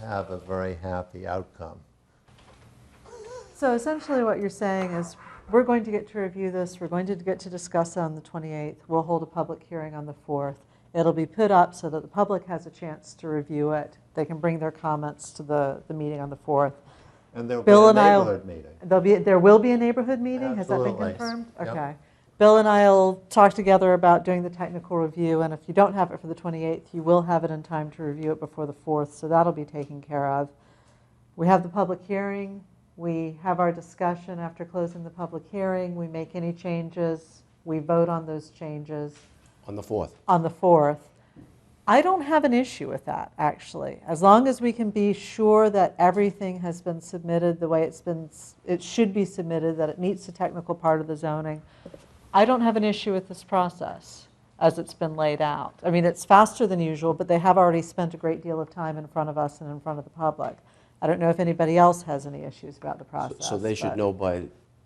have a very happy outcome. So essentially what you're saying is, we're going to get to review this, we're going to get to discuss it on the 28th, we'll hold a public hearing on the 4th. It'll be put up so that the public has a chance to review it. They can bring their comments to the, the meeting on the 4th. And there'll be Bill a and I'll- neighborhood meeting. There'll be, there will be a neighborhood meeting? Has that been Absolutely. confirmed? Yep. Okay. Bill and I'll talk together about doing the technical review, and if you don't have it for the 28th, you will have it in time to review it before the 4th, so that'll be taken care of. We have the public hearing, we have our discussion after closing the public hearing, we make any changes, we vote on those changes on the 4th. on the 4th. I don't have an issue with that, actually, as long as we can be sure that everything has been submitted the way it's been, s- it should be submitted, that it meets the technical part of the zoning. I don't have an issue with this process as it's been laid out. I mean, it's faster than usual, but they have already spent a great deal of time in front of us and in front of the public. I don't know if anybody else has any issues about the So- process. So they should but- know by,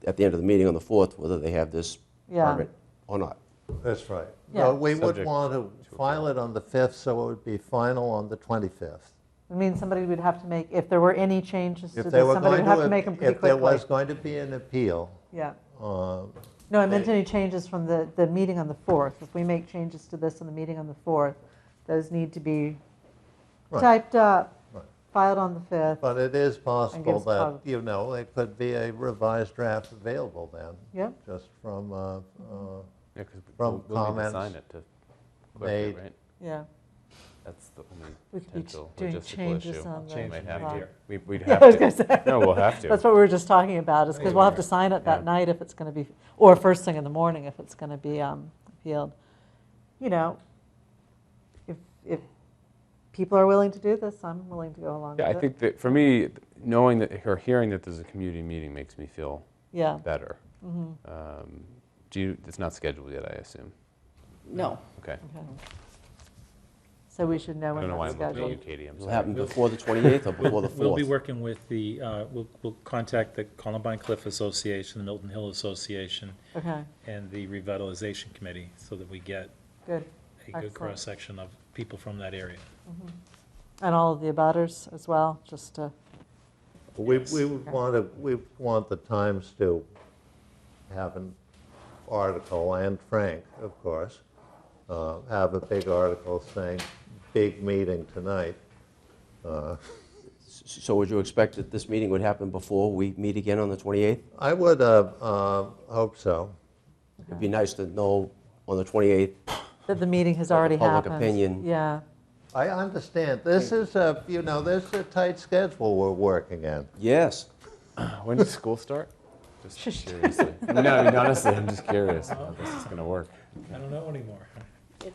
at the end of the meeting on the 4th, whether they have this Yeah. permit or not. That's right. Yeah. But we would Subject want to file it on the 5th, so it would be final on the 25th. I mean, somebody would have to make, if there were any changes to If this, they were somebody going would have to to, make them ap- pretty if there quickly. was going to be an appeal, Yeah. uh, No, I meant They- any changes from the, the meeting on the 4th. If we make changes to this in the meeting on the 4th, those need to be Right. typed up, Right. filed on the 5th. but it is possible gives that, pub- you know, there could be a revised draft available then, Yep, just from, uh, uh, Yeah, 'cause we- From we'll- We'll need to comments sign it to clerk made- it, right? yeah. That's the We only could be ch- potential doing logistical changes issue. on the We might have clock. to- we- We'd Yeah, I was have gonna to. say. No, we'll have to. That's what we were just talking about, is because we'll have to sign it that Yeah. night if it's going to be, or first thing in the morning if it's going to be um, appealed. You know, if, if people are willing to do this, I'm willing to go along with Yeah, it. I think that, for me, knowing that, or hearing that there's a community meeting makes me feel Yeah, better. mhm, Um, Do you, it's not scheduled yet, I assume? No, Okay. okay. So we should know I when don't know why that's I'm looking at scheduled. you, Katie, I'm It'll sorry. happen before the 28th or before the 4th. We'll be working with the, uh, we'll, we'll contact the Columbine Cliff Association, the Milton Hill Association, Okay, and the Revitalization Committee, so that we get good. a Excellent. good cross-section of people from that area. And all of the abutters as well, just uh, to, We, we would want to, we want the Times to have an article, and Frank, of course, uh, have a big article saying, big meeting tonight. S- So would you expect that this meeting would happen before we meet again on the 28th? I would uh, uh, hope so. It'd be nice to know on the 28th, that the meeting has Let the already public happened. opinion. Yeah, I understand, this is a, you know, this is a tight schedule we're working in. yes. When does school start? Just curiously. No, I mean, honestly, I'm just curious how this is going to work. I don't know anymore.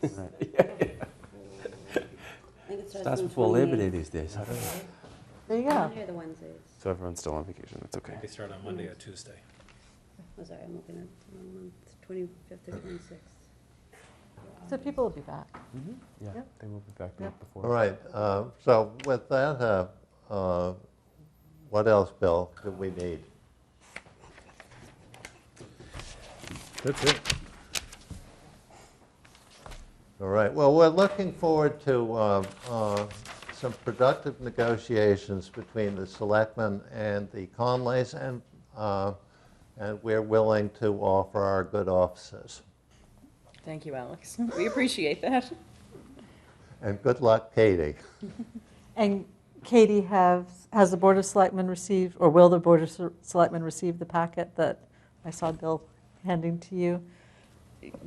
it's. I think it starts That's on before Labor Day 28th. these days. I don't know. there you I'm not go. here the Wednesdays. So everyone's still on vacation, that's okay. They start on Monday or Tuesday. Oh, sorry, I'm looking at the wrong month, 25th or 26th. So people will be back. Yeah, Yep. they will be back the Yep. week All before. right, uh, so with that, uh, uh, what else, Bill, do we need? That's it. All right, well, we're looking forward to uh, uh, some productive negotiations between the selectmen and the Conleys, and, uh, and we're willing to offer our good offices. Thank you, Alex. We appreciate that. And good luck, Katie. And Katie, has, has the Board of Selectmen received, or will the Board of Se- Selectmen receive the packet that I saw Bill handing to you?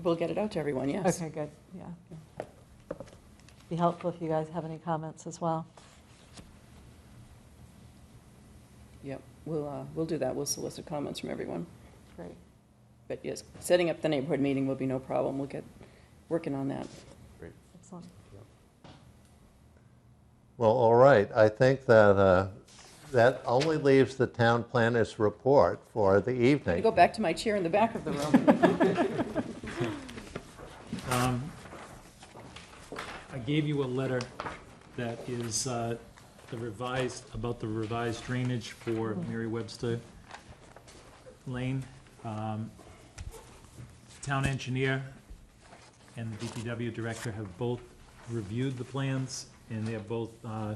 We'll get it out to everyone, yes. Okay, good, yeah. Be helpful if you guys have any comments as well. Yep, we'll, uh, we'll do that. We'll solicit comments from everyone. Great. But yes, setting up the neighborhood meeting will be no problem. We'll get working on that. Excellent. Well, all right, I think that, uh, that only leaves the town planner's report for the I evening. go back to my chair in the back of the room. Um, I gave you a letter that is uh, the revised, about the revised drainage for Mary Webster Lane. Um, Town engineer and the DPW director have both reviewed the plans, and they're both uh,